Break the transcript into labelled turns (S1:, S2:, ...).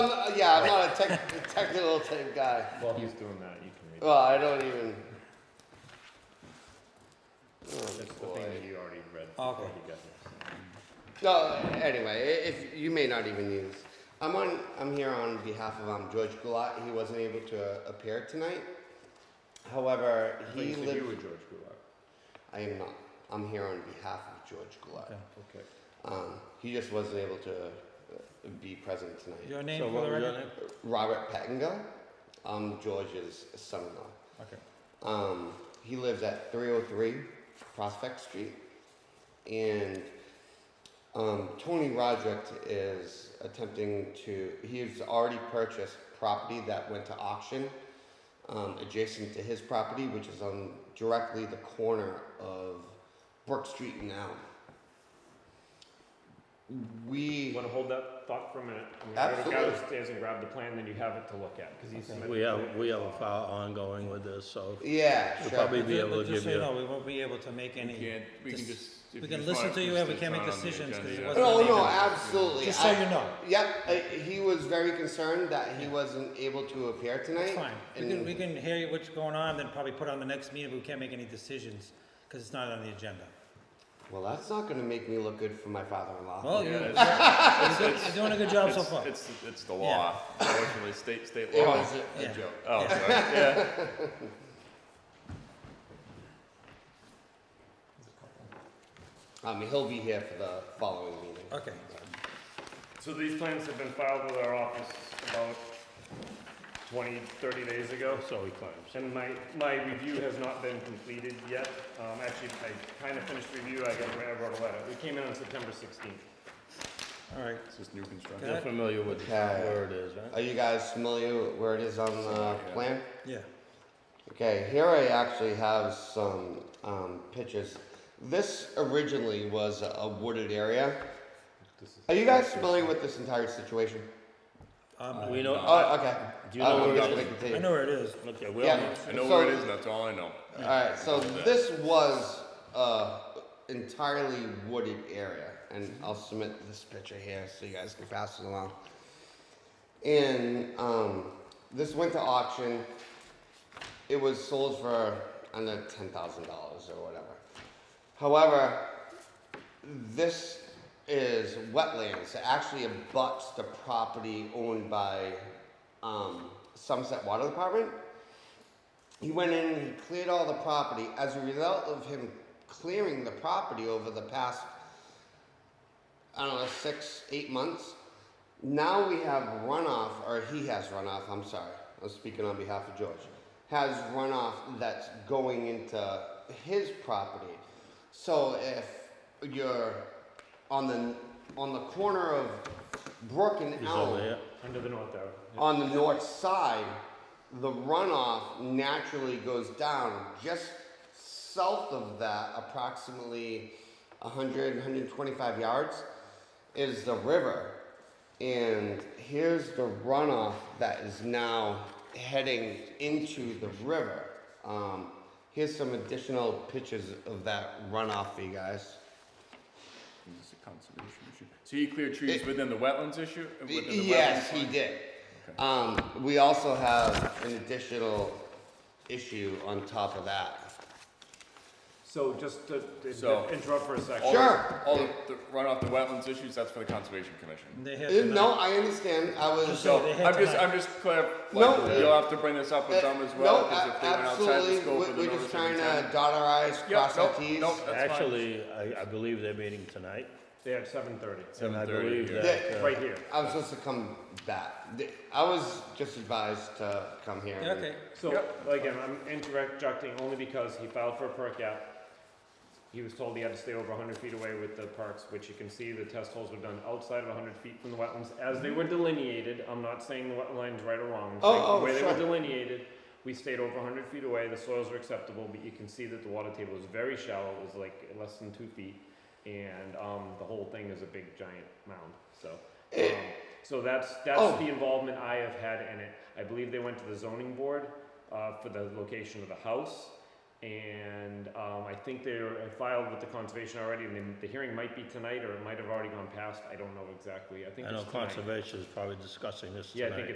S1: yeah, I'm not a tech, technical type guy.
S2: While he's doing that, you can read.
S1: Well, I don't even.
S2: That's the
S1: Oh, boy.
S2: thing that you already read
S3: Okay.
S2: before you got here.
S1: No, anyway, i- if you may not even use. I'm on. I'm here on behalf of um, George Gulat. He wasn't able to uh, appear tonight. However,
S2: I thought
S1: he
S2: you said you
S1: lived.
S2: were George Gulak.
S1: I am not. I'm here on behalf of George Gulat.
S3: Okay.
S2: Okay.
S1: Um, he just wasn't able to uh, be present tonight.
S3: Your
S2: So
S3: name for
S2: what
S3: the
S2: was your
S3: record?
S2: name?
S1: Robert Pattingill, um, George's son-in-law.
S3: Okay.
S1: Um, he lives at 303 Prospect Street, and um, Tony Roderick is attempting to. He's already purchased property that went to auction um, adjacent to his property, which is on directly the corner of Brook Street and Elm. We
S2: You wanna hold that thought for a minute? I'm gonna go
S1: Absolutely.
S2: downstairs and grab the plan, then you have it to look at, cause he's.
S3: Okay.
S2: submitted
S4: We have,
S2: it.
S4: we have a file ongoing with this, so
S1: yeah
S4: we'll
S1: sure.
S4: probably be
S3: Ju-
S4: able
S3: but
S4: to
S3: just
S4: give
S3: so you
S4: you.
S3: know, we won't be able to make
S5: We
S3: any,
S5: can't, we can
S3: dis-
S5: just. if
S3: we can
S5: just
S3: listen
S5: want
S3: to you,
S5: just-
S3: we
S5: it's
S3: can't make
S5: not on the
S3: decisions 'cause
S5: agenda.
S3: it wasn't-
S1: Oh, No,
S3: Doesn't
S1: no,
S3: make it-
S1: absolutely.
S3: just so
S1: I-
S3: you know.
S1: Yep, I, he was very concerned that he wasn't able to appear tonight.
S3: It's fine. We can,
S1: and-
S3: we can hear what's going on, then probably put on the next meeting, but we can't make any decisions, because it's not on the agenda.
S1: Well, that's not gonna make me look good for my father-in-law.
S3: Well, you-
S5: Yeah,
S3: you're
S5: it's-
S3: doing- you're doing a good job so
S5: It's,
S3: far.
S5: it's, it's the law, unfortunately, state, state
S1: It
S5: law.
S1: was a- a
S3: Yeah.
S1: joke.
S5: Oh, sorry, yeah.
S1: Um, he'll be here for the following meeting.
S3: Okay.
S2: So these plans have been filed with our office about 20, 30 days ago. So he claims. And my, my review has not been completed yet. Um, actually, I kind of finished review, I got, I wrote a letter. We came in on September 16th.
S3: All right.
S5: It's just new construction.
S4: You're
S3: Good.
S4: familiar with
S1: Okay.
S4: where it is, right?
S1: Are you guys familiar with where it is on the
S5: Yeah.
S1: plan?
S3: Yeah.
S1: Okay, here I actually have some, um, pictures. This originally was a wooded area. Are you guys familiar with this entire situation?
S3: Um,
S4: We know,
S5: Uh,
S1: Oh, okay.
S4: do you know
S1: I'm
S4: where
S1: not
S4: it
S1: gonna
S4: is?
S1: continue.
S3: I know where it is.
S4: Okay,
S1: Yeah.
S4: well,
S5: I know
S1: so-
S5: where it is, and that's all I know.
S1: All right, so this was uh, entirely wooded area, and I'll submit this picture here so you guys can pass it along. And um, this went to auction. It was sold for under ten thousand dollars or whatever. However, this is wetlands. It actually abuts the property owned by um, Sunset Water Department. He went in and he cleared all the property. As a result of him clearing the property over the past, I don't know, six, eight months, now we have runoff, or he has runoff, I'm sorry. I'm speaking on behalf of George. Has runoff that's going into his property. So if you're on the on the corner of Brook and
S4: he's
S1: Elm,
S4: over there.
S2: Under the north tower.
S1: on the north side, the runoff naturally goes down. Just south of that, approximately 100, 125 yards, is the river. And here's the runoff that is now heading into the river. Um, here's some additional pictures of that runoff for you guys.
S5: It's a conservation issue. So you clear trees
S1: It-
S5: within the wetlands issue? within the
S1: Yes,
S5: wetlands
S1: he
S5: line?
S1: did. Um, we also have an additional issue on top of that.
S2: So just to
S5: So-
S2: to interrupt for a second.
S5: All the-
S1: Sure.
S5: All the the runoff, the wetlands issues, that's for the conservation commission.
S3: They
S1: Uh,
S3: have
S1: No,
S3: tonight.
S1: I understand, I was, uh,
S3: So
S5: So,
S3: they had
S5: I'm just,
S3: tonight.
S5: I'm just clarifying,
S1: No. Uh,
S5: you'll have to bring this up with them as well,
S1: no,
S5: because
S1: a-
S5: if they went outside the
S1: absolutely,
S5: scope
S1: we-
S5: of the
S1: we're
S5: notice
S1: just
S5: of
S1: trying to
S5: intent.
S1: dot our i's,
S5: Yeah,
S1: cross our
S5: nope,
S1: t's.
S5: nope, that's fine.
S4: Actually, I, I believe they're meeting tonight,
S2: They have 7:30,
S4: and I
S5: 7:30
S4: believe
S5: here.
S4: that, uh,
S2: right here.
S1: I was supposed to come back, The- I was just advised to come here.
S3: Yeah, Okay.
S2: So,
S5: Yep.
S2: again, I'm interjecting only because he filed for a perk app. He was told he had to stay over 100 feet away with the parks, which you can see the test holes were done outside of 100 feet from the wetlands as they were delineated. I'm not saying the wetlands right or wrong. I'm
S1: Oh,
S2: saying
S1: oh,
S2: the way they
S1: sure.
S2: were delineated, we stayed over 100 feet away. The soils were acceptable, but you can see that the water table is very shallow. It was like less than two feet, and um, the whole thing is a big giant mound. So. Um, so that's,
S1: Oh.
S2: that's the involvement I have had in it. I believe they went to the zoning board, uh, for the location of the house. And, um, I think they are filed with the conservation already, and then the hearing might be tonight, or it might have already gone past, I don't know exactly, I think
S4: uh, I
S2: it's
S4: know
S2: tonight.
S4: conservation is probably discussing this
S2: Yeah, I
S4: tonight.
S2: think